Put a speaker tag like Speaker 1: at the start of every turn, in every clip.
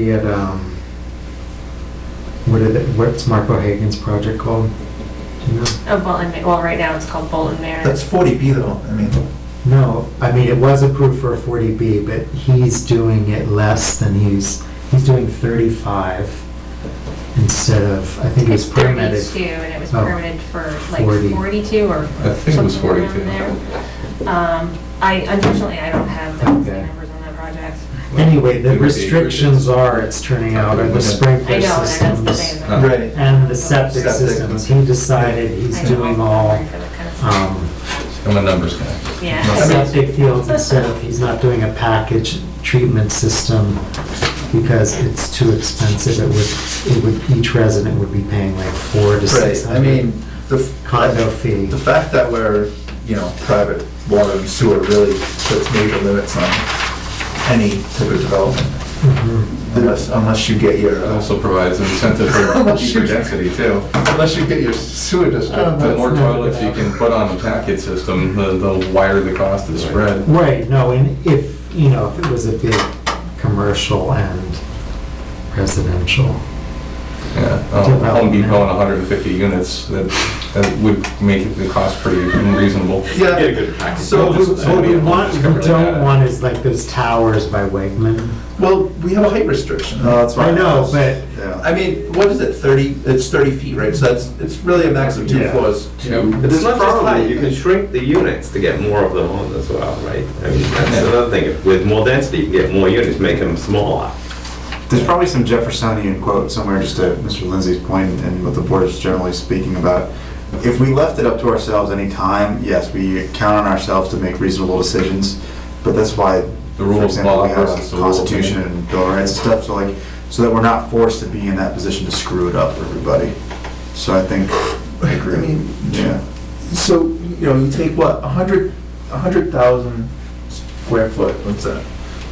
Speaker 1: He had, um, what is it, what's Marco Hagan's project called? Do you know?
Speaker 2: Oh, Bolton, Ma- well, right now it's called Bolton Manor.
Speaker 3: That's 40B though, I mean,
Speaker 1: No, I mean, it was approved for a 40B, but he's doing it less than he's, he's doing 35 instead of, I think
Speaker 2: It's
Speaker 1: it's permitted.
Speaker 2: thirty-two, and it was
Speaker 1: Oh.
Speaker 2: permitted for like
Speaker 1: 40.
Speaker 2: forty-two or
Speaker 4: I think it was
Speaker 2: something around
Speaker 4: 42.
Speaker 2: there. Um, I, unfortunately, I don't have the
Speaker 1: Okay.
Speaker 2: numbers on that project.
Speaker 1: Anyway,
Speaker 4: It
Speaker 1: the
Speaker 4: would be
Speaker 1: restrictions
Speaker 4: rigid.
Speaker 1: are, it's turning out, are the
Speaker 4: Yeah.
Speaker 2: I
Speaker 1: sprinkler
Speaker 2: know, and that's the
Speaker 1: systems
Speaker 2: thing.
Speaker 4: Uh,
Speaker 3: right.
Speaker 1: and the septic
Speaker 3: Septic.
Speaker 1: systems. He decided he's
Speaker 2: I don't
Speaker 1: doing
Speaker 2: know.
Speaker 1: all,
Speaker 2: Yeah.
Speaker 1: um,
Speaker 4: I'm a numbers guy.
Speaker 2: Yeah.
Speaker 1: septic fields instead of, he's not doing a package treatment system because it's too expensive. It would, it would, each resident would be paying like four to six
Speaker 3: Right, I
Speaker 1: hundred
Speaker 3: mean, the.
Speaker 1: condo fee.
Speaker 3: The fact that we're, you know, private water and sewer really puts major limits on any type of development.
Speaker 1: Mhm.
Speaker 3: Unless, unless you get your,
Speaker 4: It
Speaker 3: uh,
Speaker 4: also provides incentive
Speaker 2: Oh,
Speaker 4: for cheaper density too. Unless you get your sewer
Speaker 2: Oh,
Speaker 3: Oh,
Speaker 4: district, the more toilets you can put on a packet system, the the wider the cost is spread.
Speaker 1: Right, no, and if, you know, if it was a big commercial and residential.
Speaker 4: Yeah, um, Home Depot and 150 units, that that would make the cost pretty reasonable.
Speaker 3: yeah,
Speaker 5: good.
Speaker 3: So
Speaker 1: What we- what we want, we
Speaker 4: Cover
Speaker 1: don't
Speaker 4: that.
Speaker 1: want is like those towers by Wegman.
Speaker 3: well, we have a height restriction.
Speaker 4: Oh,
Speaker 1: I know, but
Speaker 3: I mean, what is it, 30, it's 30 feet, right? So that's, it's really a max of two
Speaker 5: Yeah.
Speaker 3: floors.
Speaker 4: Two.
Speaker 5: It's not just
Speaker 3: probably-
Speaker 5: height, you can shrink the units to get more of them on as well, right? I mean, that's another thing, with more density, you can get more units, make them smaller.
Speaker 6: There's probably some Jeffersonian quote somewhere, just to Mr. Lindsay's point and what the board is generally speaking about. If we left it up to ourselves any time, yes, we count on ourselves to make reasonable decisions, but that's why,
Speaker 4: The
Speaker 6: for
Speaker 4: rule of
Speaker 6: example,
Speaker 4: law
Speaker 6: we have
Speaker 4: versus the
Speaker 6: a
Speaker 4: rule of
Speaker 6: constitution
Speaker 4: man.
Speaker 6: and bill of rights and stuff, so like, so that we're not forced to be in that position to screw it up for everybody. So I think, I
Speaker 3: I
Speaker 6: agree,
Speaker 3: mean,
Speaker 6: yeah.
Speaker 3: So, you know, you take what, a hundred, a hundred thousand square foot, what's that?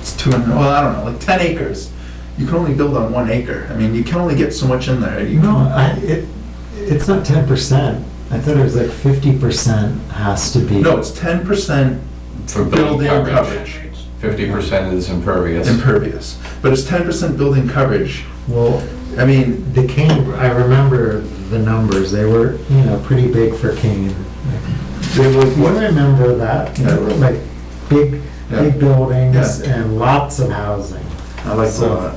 Speaker 3: It's two hundred, well, I don't know, like ten acres. You can only build on one acre. I mean, you can only get so much in there. You
Speaker 1: No,
Speaker 3: can-
Speaker 1: I, it, it's not ten percent. I thought it was like fifty percent has to be.
Speaker 3: No, it's ten percent
Speaker 4: For
Speaker 3: building
Speaker 4: building coverage,
Speaker 3: coverage
Speaker 4: 50% is impervious.
Speaker 3: impervious, but it's ten percent building coverage.
Speaker 1: Well,
Speaker 3: I mean,
Speaker 1: the Kane, I remember the numbers. They were, you know, pretty big for Kane.
Speaker 3: they were
Speaker 1: You
Speaker 3: what?
Speaker 1: remember that, you know,
Speaker 3: Yeah.
Speaker 1: like big, big
Speaker 3: Yeah.
Speaker 1: buildings
Speaker 3: Yeah.
Speaker 1: and lots of housing.
Speaker 6: I like
Speaker 1: So-
Speaker 6: that.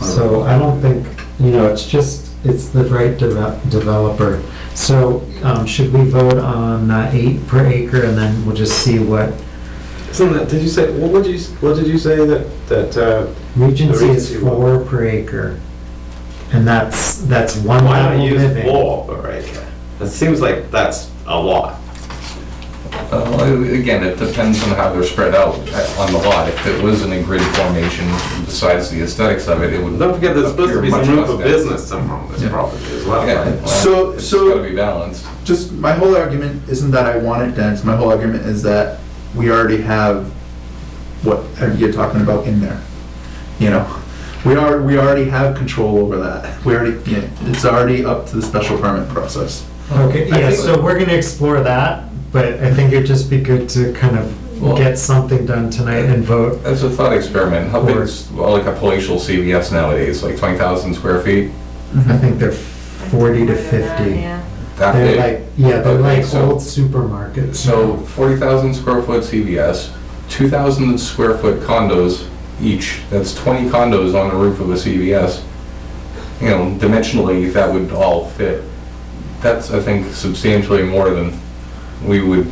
Speaker 1: So I don't think, you know, it's just, it's the right deve- developer. So um, should we vote on uh, eight per acre and then we'll just see what
Speaker 5: Isn't that, did you say, what would you, what did you say that, that, uh,
Speaker 1: Regency is
Speaker 5: Regency
Speaker 1: four per acre. And that's, that's one
Speaker 5: why not
Speaker 1: level
Speaker 5: use
Speaker 1: living.
Speaker 5: four per acre? That seems like that's a lot.
Speaker 4: Uh, Well, Again, it depends on how they're spread out uh, on the lot. If it was in a grid formation, besides the aesthetics of it, it would.
Speaker 5: Don't forget, there's supposed to be
Speaker 4: appear
Speaker 5: some
Speaker 4: much
Speaker 5: room
Speaker 4: less
Speaker 5: for
Speaker 4: dense.
Speaker 5: business somewhere on this
Speaker 3: Yeah.
Speaker 5: property as well,
Speaker 4: Yeah,
Speaker 5: right?
Speaker 3: So-
Speaker 4: well, it's
Speaker 3: so-
Speaker 4: gotta be balanced.
Speaker 3: Just, my whole argument isn't that I want it dense. My whole argument is that we already have what you're talking about in there. You know, we are, we already have control over that. We already, yeah, it's already up to the special permit process.
Speaker 1: Okay,
Speaker 3: I
Speaker 1: yeah,
Speaker 3: think-
Speaker 1: so we're gonna explore that, but I think it'd just be good to kind of
Speaker 4: Well-
Speaker 1: get something done tonight and vote.
Speaker 4: As a thought experiment, how big is, well, like a palatial CVS nowadays, like 20,000 square feet?
Speaker 1: I
Speaker 3: Mhm.
Speaker 1: think they're forty to fifty.
Speaker 2: Yeah.
Speaker 4: That
Speaker 1: They're
Speaker 4: big?
Speaker 1: like, yeah, they're
Speaker 4: Okay,
Speaker 1: like
Speaker 4: so-
Speaker 1: old supermarkets.
Speaker 4: So 40,000 square foot CVS, 2,000 square foot condos each, that's 20 condos on the roof of a CVS. You know, dimensionally, that would all fit. That's, I think, substantially more than we would.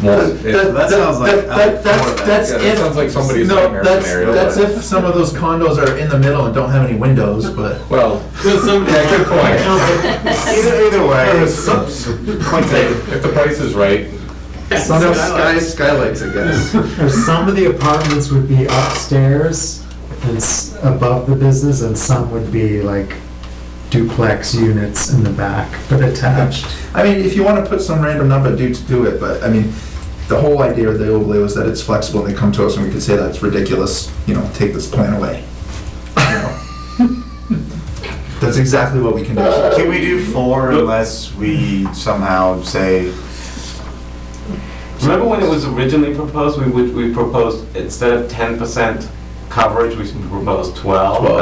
Speaker 4: want.
Speaker 3: That-
Speaker 6: That sounds like-
Speaker 3: that- that- That's, that's
Speaker 4: Yeah,
Speaker 3: if.
Speaker 4: that sounds like somebody's
Speaker 3: no,
Speaker 4: nightmare
Speaker 3: that's-
Speaker 4: scenario,
Speaker 3: That's
Speaker 4: but-
Speaker 3: if some of those condos are in the middle and don't have any windows, but.
Speaker 4: Well, yeah, good point.
Speaker 6: Either, either way. Point taken.
Speaker 4: If the price is right,
Speaker 1: Some
Speaker 3: No
Speaker 1: of-
Speaker 3: sky, skylights, I guess.
Speaker 1: Or some of the apartments would be upstairs and s- above the business, and some would be like duplex units in the back, but attached.
Speaker 3: I mean, if you wanna put some random number, do, do it, but, I mean, the whole idea of the overlay was that it's flexible, and they come to us and we can say that's ridiculous, you know, take this plan away. You know? That's exactly what we can do.
Speaker 6: Can we do four unless we somehow say,
Speaker 5: Remember when it was originally proposed, we, would- we proposed, instead of ten percent coverage, we proposed twelve?